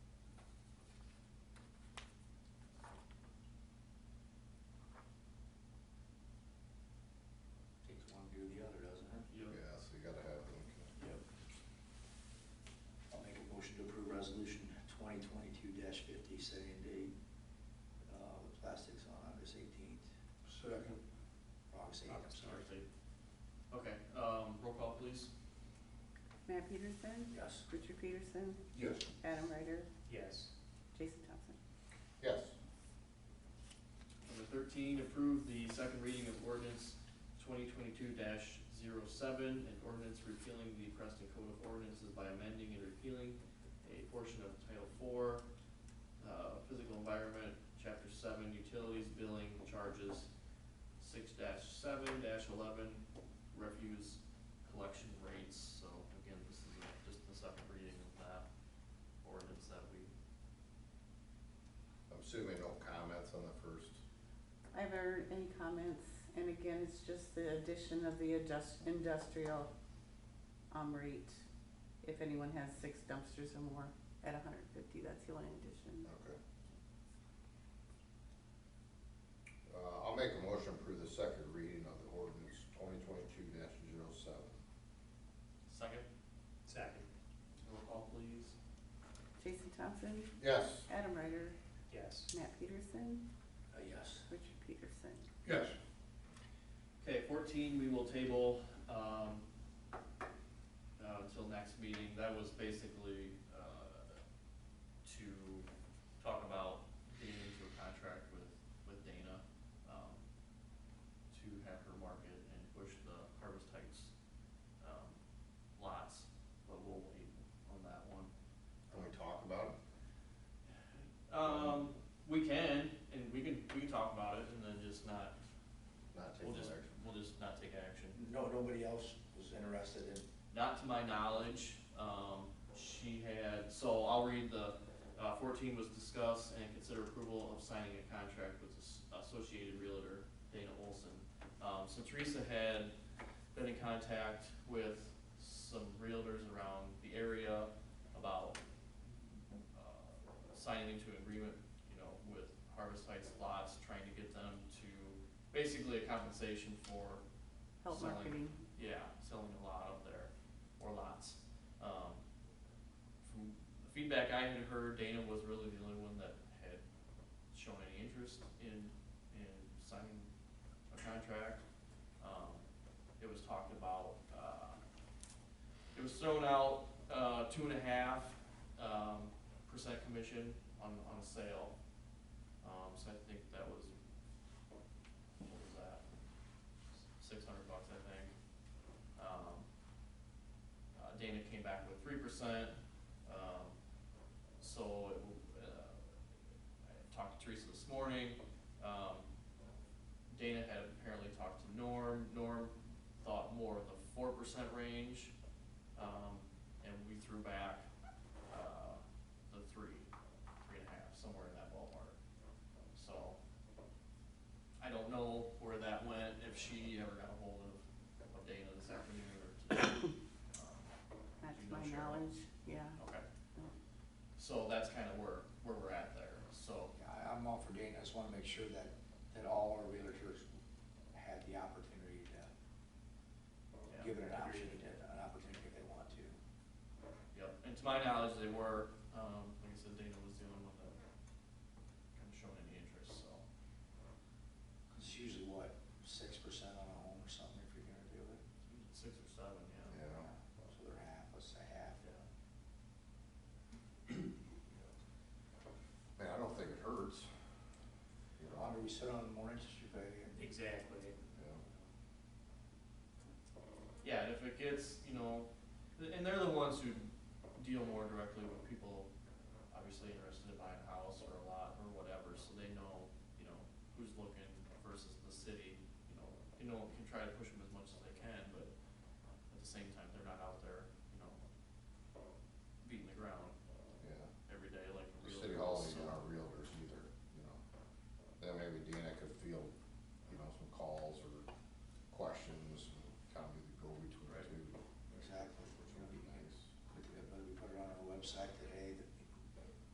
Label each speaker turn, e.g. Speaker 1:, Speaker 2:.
Speaker 1: setting date, uh, with plastics on August eighteenth,
Speaker 2: Second.
Speaker 1: August eighth, I'm sorry.
Speaker 3: Okay, um, roll call please.
Speaker 4: Matt Peterson,
Speaker 1: Yes,
Speaker 4: Richard Peterson,
Speaker 2: Yes.
Speaker 4: Adam Ryder,
Speaker 3: Yes.
Speaker 4: Jason Thompson.
Speaker 2: Yes.
Speaker 3: Number thirteen, approve the second reading of ordinance twenty twenty-two 7 an ordinance repealing the Preston Code of Ordinances by amending and repealing a portion of Title Four, uh, Physical Environment, Chapter Seven, Utilities Billing Charges, six seven eleven, Refuse Collection Rates. So again, this is a- just the second reading of that ordinance that we
Speaker 2: I'm assuming no comments on the first.
Speaker 4: I have heard any comments, and again, it's just the addition of the adjust, industrial, um, rate. If anyone has six dumpsters or more at hundred and fifty, that's the only addition.
Speaker 2: Okay. Uh, I'll make a motion to approve the second reading of the ordinance twenty twenty-two 7
Speaker 3: Second? Second. Roll call, please.
Speaker 4: Jason Thompson,
Speaker 2: Yes.
Speaker 4: Adam Ryder,
Speaker 3: Yes.
Speaker 4: Matt Peterson,
Speaker 1: uh, yes,
Speaker 4: Richard Peterson.
Speaker 2: Yes.
Speaker 3: Okay, fourteen, we will table, um, uh, until next meeting. That was basically, uh, to talk about getting into a contract with, with Dana, um, to have her market and push the Harvest Heights, um, lots, but we'll wait on that one.
Speaker 2: Can we talk about it?
Speaker 3: Um, we can, and we can, we can talk about it and then just not,
Speaker 2: Not take
Speaker 3: we'll
Speaker 2: no
Speaker 3: just,
Speaker 2: action.
Speaker 3: we'll just not take action.
Speaker 1: no, nobody else was interested in
Speaker 3: Not to my knowledge, um, she had, so I'll read the, uh, fourteen was discuss and consider approval of signing a contract with As- Associated Realtor Dana Olson. Um, so Teresa had been in contact with some realtors around the area about, uh, signing into an agreement, you know, with Harvest Heights lots, trying to get them to, basically a compensation for
Speaker 4: Help
Speaker 3: Selling.
Speaker 4: marketing.
Speaker 3: yeah, selling a lot up there, or lots. Um, from the feedback I had heard, Dana was really the only one that had shown any interest in, in signing a contract. Um, it was talked about, uh, it was thrown out, uh, two and a half, um, percent commission on, on a sale. Um, so I think that was, what was that? Six hundred bucks, I think. Um, uh, Dana came back with three percent, um, so, it, uh, I talked to Teresa this morning, um, Dana had apparently talked to Norm, Norm thought more of the four percent range, um, and we threw back, uh, the three, three and a half, somewhere in that ballpark, so. I don't know where that went, if she ever got a hold of, of Dana this afternoon or today. Um,
Speaker 4: Not to
Speaker 3: You know,
Speaker 4: my
Speaker 3: Cheryl.
Speaker 4: knowledge, yeah. Um,
Speaker 3: Okay, so that's kind of where, where we're at there, so,
Speaker 1: Yeah, I- I'm all for Dana, I just wanna make sure that, that all our realtors had the opportunity to,
Speaker 3: Yeah.
Speaker 1: given an option, an opportunity if they want to.
Speaker 3: yep, and to my knowledge, they were, um, like I said, Dana was the only one that kind of showing any interest, so.
Speaker 1: It's usually what, six percent on a home or something if you're gonna do it?
Speaker 3: Six or seven, yeah.
Speaker 2: Yeah.
Speaker 1: So they're half, let's say half.
Speaker 3: Yeah.
Speaker 2: Man, I don't think it hurts. You
Speaker 1: The
Speaker 2: know,
Speaker 1: longer we sit on, the more interest you pay. and-
Speaker 3: Exactly.
Speaker 2: yeah.
Speaker 3: Yeah, and if it gets, you know, th- and they're the ones who deal more directly with people obviously interested in buying a house or a lot or whatever, so they know, you know, who's looking versus the city, you know, you know, can try to push them as much as they can, but at the same time, they're not out there, you know, beating the ground
Speaker 2: Yeah,
Speaker 3: every day like a
Speaker 2: the
Speaker 3: real.
Speaker 2: city hall ain't got our realtors either, you know. Then maybe Dana could field, you know, some calls or questions, and kind of be the go-between
Speaker 3: Right.
Speaker 2: too.
Speaker 1: Exactly.
Speaker 2: Which
Speaker 1: We're
Speaker 2: would
Speaker 1: gonna
Speaker 2: be
Speaker 1: be-
Speaker 2: nice.
Speaker 1: Whether we put it on our website